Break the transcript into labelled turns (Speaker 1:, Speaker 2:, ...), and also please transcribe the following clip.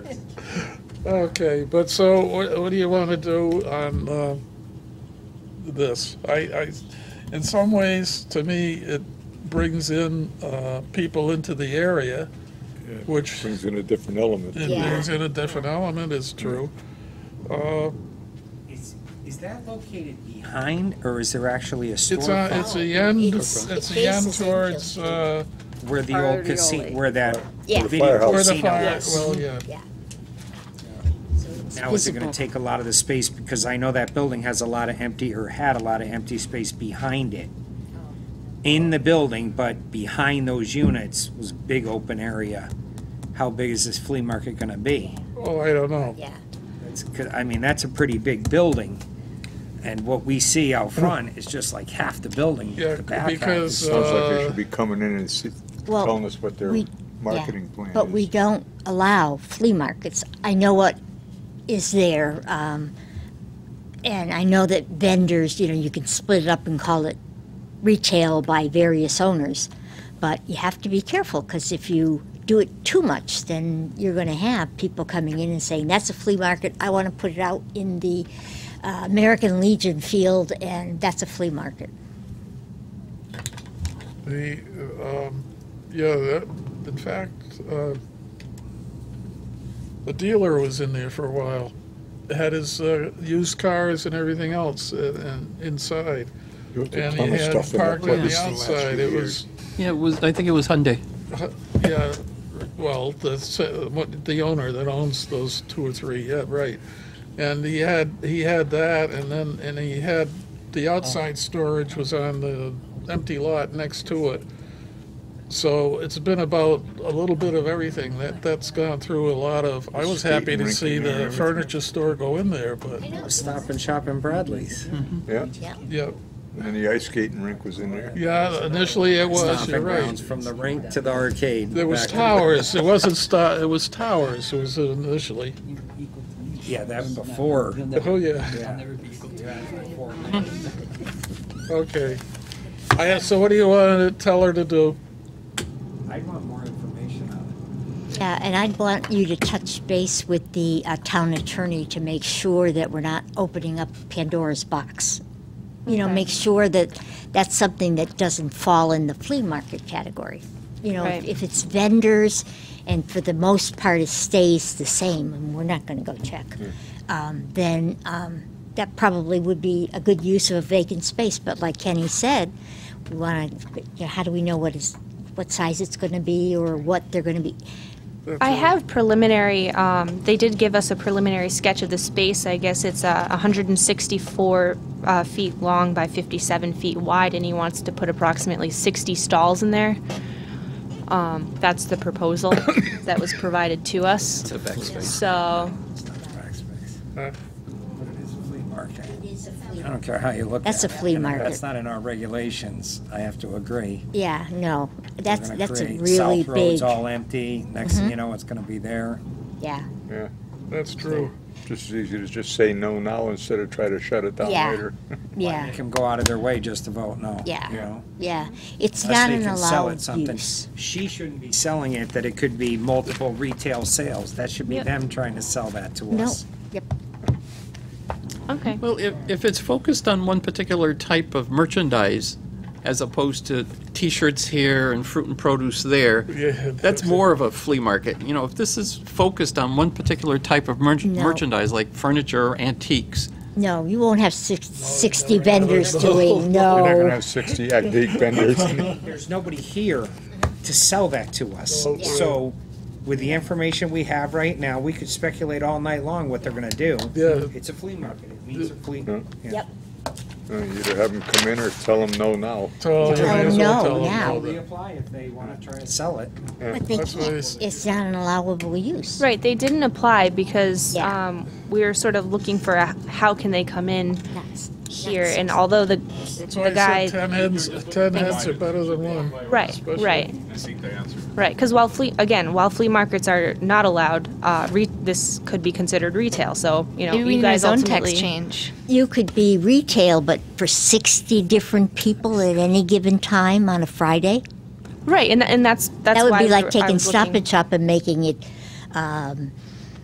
Speaker 1: Okay, but so what, what do you want to do on uh, this? I, I, in some ways, to me, it brings in uh, people into the area,
Speaker 2: It
Speaker 1: which it
Speaker 2: Brings in a different element.
Speaker 3: Yeah.
Speaker 1: brings in a different element. Is true. Uh,
Speaker 4: Is, is that located behind, or is there actually a
Speaker 1: it's a,
Speaker 4: storefront
Speaker 1: it's the end.
Speaker 3: It's-
Speaker 1: It's
Speaker 3: it
Speaker 1: the end
Speaker 3: faces in
Speaker 1: towards
Speaker 3: Kill
Speaker 1: uh,
Speaker 4: where the old casino,
Speaker 5: Arioli.
Speaker 4: where that
Speaker 3: Yeah.
Speaker 4: video
Speaker 2: Firehouse.
Speaker 1: where the
Speaker 4: casino
Speaker 1: fire.
Speaker 4: was?
Speaker 1: Well, yeah.
Speaker 4: Now, is it gonna take a lot of the space, because I know that building has a lot of empty, or had a lot of empty space behind it. In the building, but behind those units was big open area. How big is this flea market gonna be?
Speaker 1: Well, Oh, I don't know.
Speaker 3: Yeah.
Speaker 4: It's, 'cause- I mean, that's a pretty big building, and what we see out front is just like half the building.
Speaker 1: Mm. Yeah,
Speaker 4: The back half is
Speaker 1: because,
Speaker 4: so
Speaker 2: Sounds like they
Speaker 1: Uh,
Speaker 2: should be coming in and see-
Speaker 5: Well,
Speaker 2: telling us what their
Speaker 5: we-
Speaker 2: marketing plan is.
Speaker 5: But we don't allow flea markets. I know what is there, um, and I know that vendors, you know, you can split it up and call it retail by various owners, but you have to be careful because if you do it too much, then you're going to have people coming in and saying, "That's a flea market. I want to put it out in the uh, American Legion field, and that's a flea market."
Speaker 1: The, um, yeah, that, in fact, uh, the dealer was in there for a while. Had his, uh, used cars and everything else uh, and inside.
Speaker 2: There was a
Speaker 1: And
Speaker 2: ton
Speaker 1: he
Speaker 2: of
Speaker 1: had
Speaker 2: stuff in that
Speaker 1: parked on
Speaker 2: place
Speaker 1: the
Speaker 2: in last
Speaker 1: outside.
Speaker 2: few
Speaker 1: It
Speaker 2: years.
Speaker 1: was,
Speaker 6: Yeah, it was, I think it was Hyundai.
Speaker 1: yeah, well, the, se- what, the owner that owns those two or three, yeah, right. And he had, he had that and then, and he had, the outside storage was on the empty lot next to it. So it's been about a little bit of everything. That, that's gone through a lot of, I was
Speaker 2: Skate
Speaker 1: happy to
Speaker 2: rink
Speaker 1: see
Speaker 2: in there,
Speaker 1: the
Speaker 2: everything.
Speaker 1: furniture store go in there, but,
Speaker 4: Stop and Shop in Bradley's.
Speaker 2: Yeah,
Speaker 1: yeah,
Speaker 2: and the ice skating rink was in there.
Speaker 1: yeah, initially it was, you're
Speaker 4: Stomping grounds
Speaker 1: right.
Speaker 4: from the rink to the arcade.
Speaker 1: There was
Speaker 4: back-
Speaker 1: towers, it wasn't sta, it was towers, it was initially,
Speaker 4: Yeah, that before.
Speaker 1: oh, yeah. Okay. I asked, so what do you want to tell her to do?
Speaker 4: I want more information on
Speaker 5: Yeah, and I'd want you to touch base with the uh, town attorney to make sure that we're not opening up Pandora's box. You know, make sure that that's something that doesn't fall in the flea market category. You know,
Speaker 3: Right.
Speaker 5: if, if it's vendors, and for the most part it stays the same, and we're not going to go check, um, then um, that probably would be a good use of a vacant space. But like Kenny said, we want to. You know, how do we know what is what size it's going to be or what they're going to be?
Speaker 7: I have preliminary, um, they did give us a preliminary sketch of the space. I guess it's uh, 164 uh, feet long by 57 feet wide, and he wants to put approximately 60 stalls in there. Um, That's the proposal that was provided to us. So,
Speaker 1: Huh?
Speaker 4: it.
Speaker 5: It is a flea
Speaker 4: I don't care how you look at it.
Speaker 5: That's a flea
Speaker 4: And if
Speaker 5: market.
Speaker 4: That's not in our regulations, I have to agree.
Speaker 5: Yeah, no,
Speaker 4: They're
Speaker 5: that's
Speaker 4: gonna
Speaker 5: that's a
Speaker 4: create
Speaker 5: really
Speaker 4: South Road's
Speaker 5: big. Mm-hmm.
Speaker 4: all empty, next thing you know, it's gonna be there.
Speaker 5: Yeah,
Speaker 2: Yeah,
Speaker 1: That's true.
Speaker 2: just as easy to just say no now instead of try to shut it down
Speaker 5: Yeah.
Speaker 2: later.
Speaker 5: yeah,
Speaker 4: Make them go out of their way just to vote no.
Speaker 5: Yeah.
Speaker 4: You know?
Speaker 5: yeah. It's
Speaker 4: Unless
Speaker 5: not
Speaker 4: they
Speaker 5: an
Speaker 4: can sell it
Speaker 5: allowed
Speaker 4: something.
Speaker 5: use.
Speaker 4: She shouldn't be selling it, that it could be multiple retail sales. That should be them trying to sell that to
Speaker 5: No.
Speaker 4: us.
Speaker 5: Yep.
Speaker 7: okay.
Speaker 6: Well, if, if it's focused on one particular type of merchandise, as opposed to T-shirts here and fruit and produce there,
Speaker 1: Yeah,
Speaker 6: that's more of a flea market. You know, if this is focused on one particular type of merch-
Speaker 5: No.
Speaker 6: merchandise, like furniture or antiques,
Speaker 5: No, you won't have six, 60 vendors doing
Speaker 2: You're not gonna
Speaker 5: no.
Speaker 2: have sixty antique vendors.
Speaker 5: Oh.
Speaker 4: There's nobody here to sell that to us.
Speaker 1: Well, Oh, Yeah.
Speaker 4: So with the information we have right now, we could speculate all night long what they're gonna do.
Speaker 1: Yeah.
Speaker 4: It's a flea market. It means a flea.
Speaker 2: Yeah.
Speaker 4: yeah.
Speaker 5: Yep.
Speaker 2: Uh, Either have them come in or tell them no now.
Speaker 1: Tell her, you
Speaker 5: Tell
Speaker 1: may as
Speaker 5: her
Speaker 1: well
Speaker 5: Oh, no
Speaker 1: tell her
Speaker 5: now.
Speaker 1: that.
Speaker 4: They apply if they wanna try to sell it.
Speaker 5: But they
Speaker 1: That's what I s-
Speaker 5: can't. It's not an allowable use.
Speaker 7: Right, they didn't apply because
Speaker 5: Yeah.
Speaker 7: um, we were sort of looking for a- how can they come in
Speaker 5: That's-
Speaker 7: here, and although the,
Speaker 1: That's why
Speaker 7: the
Speaker 1: I
Speaker 7: guy.
Speaker 1: said ten heads, ten heads are better than one.
Speaker 7: Right,
Speaker 1: Especially-
Speaker 7: right. Right, because while flea, again, while flea markets are not allowed, uh, re- this could be considered retail, so, you know,
Speaker 3: Maybe we
Speaker 7: you
Speaker 3: need a
Speaker 7: guys
Speaker 3: zone
Speaker 7: ultimately.
Speaker 3: text change.
Speaker 5: You could be retail, but for 60 different people at any given time on a Friday?
Speaker 7: Right, and, and that's, that's
Speaker 5: That
Speaker 7: why.
Speaker 5: would be
Speaker 7: we were-
Speaker 5: like
Speaker 7: I
Speaker 5: taking
Speaker 7: was
Speaker 5: Stop
Speaker 7: looking-
Speaker 5: and Shop and making it um,